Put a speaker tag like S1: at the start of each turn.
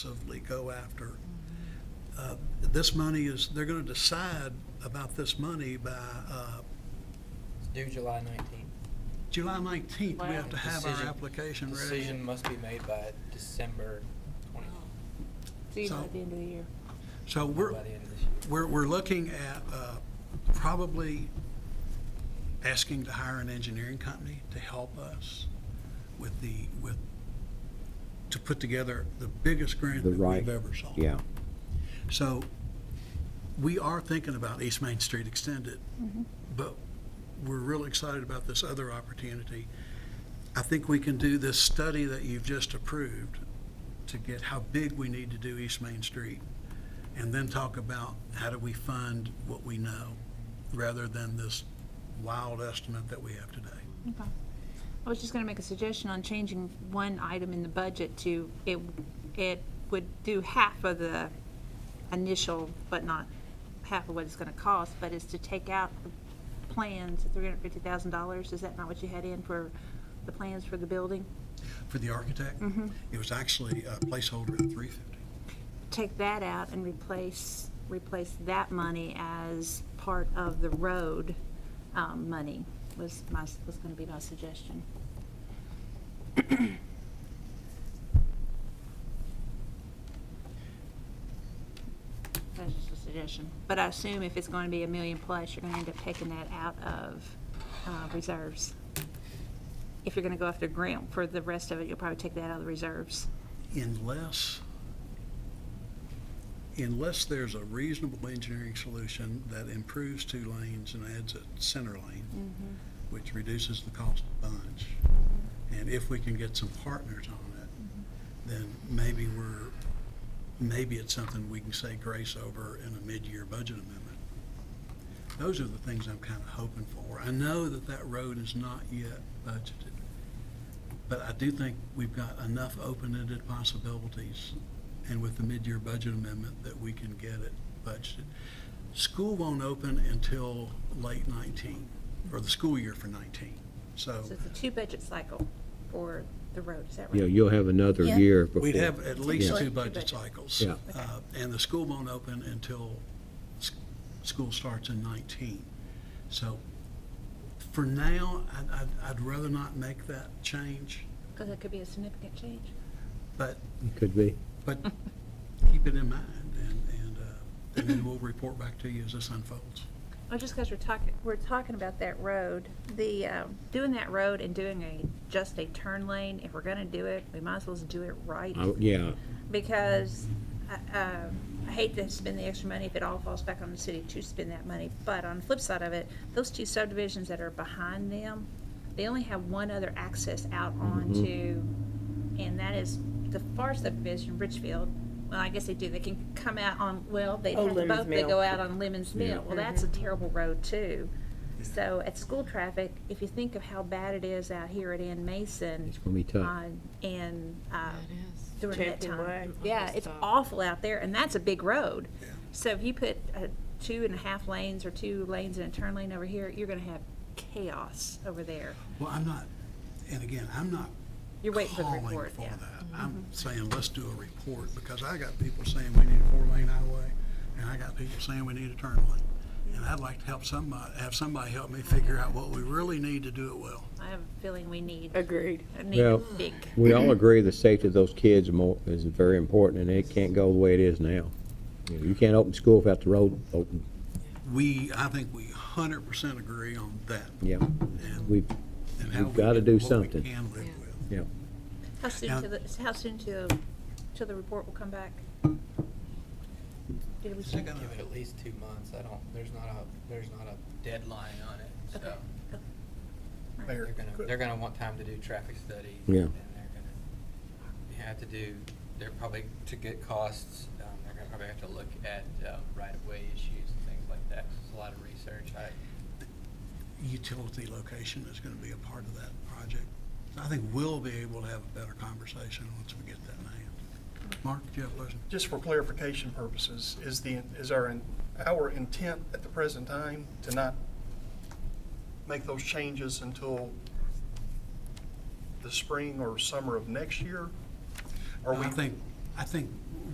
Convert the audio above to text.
S1: aggressively go after. Uh, This money is, they're going to decide about this money by uh,
S2: Due July nineteenth.
S1: July 19th. We have to have our
S2: Decision-
S1: application ready.
S2: Decision must be made by December twentieth,
S3: See you
S1: So-
S3: by the end of the year.
S1: So we're,
S2: by the end of this year.
S1: we're, we're looking at uh, probably asking to hire an engineering company to help us with the, with, to put together the biggest grant
S4: The
S1: that
S4: right-
S1: we've ever saw.
S4: Yeah,
S1: So we are thinking about East Main Street Extended, but we're real excited about this other opportunity. I think we can do this study that you've just approved to get how big we need to do East Main Street, and then talk about how do we fund what we know, rather than this wild estimate that we have today.
S3: Okay. I was just gonna make a suggestion on changing one item in the budget to, it, it would do half of the initial, but not half of what it's gonna cost, but is to take out the plans, three hundred fifty thousand dollars, is that not what you had in for the plans for the building?
S1: For the architect, it was actually a placeholder at three fifty.
S3: Take that out and replace, replace that money as part of the road, um, money, was my, was gonna be my suggestion. That's just a suggestion. But I assume if it's going to be a million plus, you're going to end up taking that out of uh, reserves. If you're going to go after grant for the rest of it, you'll probably take that out of the reserves.
S1: unless, unless there's a reasonable engineering solution that improves two lanes and adds a center lane, which reduces the cost a bunch, and if we can get some partners on it, then maybe we're, maybe it's something we can say grace over in a mid-year budget amendment. Those are the things I'm kind of hoping for. I know that that road is not yet budgeted. But I do think we've got enough open-ended possibilities, and with the mid-year budget amendment, that we can get it budgeted. School won't open until late 19, or the school year for 19. So
S3: So it's a two-budget cycle for the road, is that right?
S4: yeah, you'll have another
S5: Yeah.
S4: year before.
S1: we'd have at least
S4: Yeah.
S1: two budget cycles.
S4: Yeah.
S1: Uh, And the school won't open until s- school starts in 19. So for now, I'd- I'd- I'd rather not make that change,
S3: Because it could be a significant change.
S1: but
S4: Could be.
S1: But keep it in mind, and, and, uh, and then we'll report back to you as this unfolds.
S3: Well, Oh, just because we're talking, we're talking about that road, the, um, doing that road and doing a, just a turn lane, if we're going to do it, we might as well do it right.
S4: I- Yeah,
S3: because I- um, I hate to spend the extra money if it all falls back on the city to spend that money. But on the flip side of it, those two subdivisions that are behind them, they only have one other access out
S4: Mm-hmm.
S3: onto, and that is the far subdivision, Richfield. Well, I guess they do, they can come out on, well, they
S5: Oh,
S3: have to
S5: Lemons
S3: both, they
S5: Mill. Mm-hmm.
S3: go out on Lemons Mill.
S4: Yeah.
S3: Well, that's a terrible road too. So at school traffic, if you think of how bad it is out here at Ann Mason.
S4: It's gonna be tough.
S3: on- And, uh, during that
S5: Champion Way,
S3: time.
S5: all
S3: Yeah,
S5: that
S3: it's
S5: stuff.
S3: awful out there, and that's a big road.
S1: Yeah.
S3: So if you put uh, two and a half lanes or two lanes and a turn lane over here, you're gonna have chaos over there.
S1: Well, I'm not, and again, I'm not
S3: You're waiting for the
S1: calling
S3: report,
S1: for
S3: yeah. Mm-hmm.
S1: that. I'm saying, let's do a report, because I got people saying we need a four-lane highway, and I got people saying we need a turn lane. And I'd like to help somebody, have somebody help me figure out what we really need to do it well.
S3: I have a feeling we need,
S5: Agreed.
S3: need a
S4: Well-
S3: big,
S4: we all agree the safety of those kids mo- is very important, and it can't go the way it is now. You know, You can't open school without the road open,
S1: We, I think we hundred percent agree on that.
S4: yeah.
S1: and-
S4: We've,
S1: and how we
S4: we've gotta
S1: can-
S4: do
S1: what we
S4: something.
S1: can live with.
S4: yeah,
S3: how soon
S1: Now-
S3: till, the- how soon till, till the report will come back? Did we
S1: Second.
S3: say?
S2: Give it at least two months. I don't, there's not a, there's not a deadline on it,
S3: Okay. Oh.
S2: so.
S1: Mayor,
S2: They're gonna,
S1: could-
S2: they're gonna want time to do traffic studies.
S4: Yeah.
S2: And they're gonna, you have to do, they're probably, to get costs, um, they're gonna probably have to look at, uh, right-of-way issues and things like that. 'cause It's a lot of research. I,
S1: utility location is going to be a part of that project. I think we'll be able to have a better conversation once we get that in hand. Mark, do you have a question?
S6: Just for clarification purposes, is the, is our, our intent at the present time to not make those changes until the spring or summer of next year? Are we,
S1: I think, I think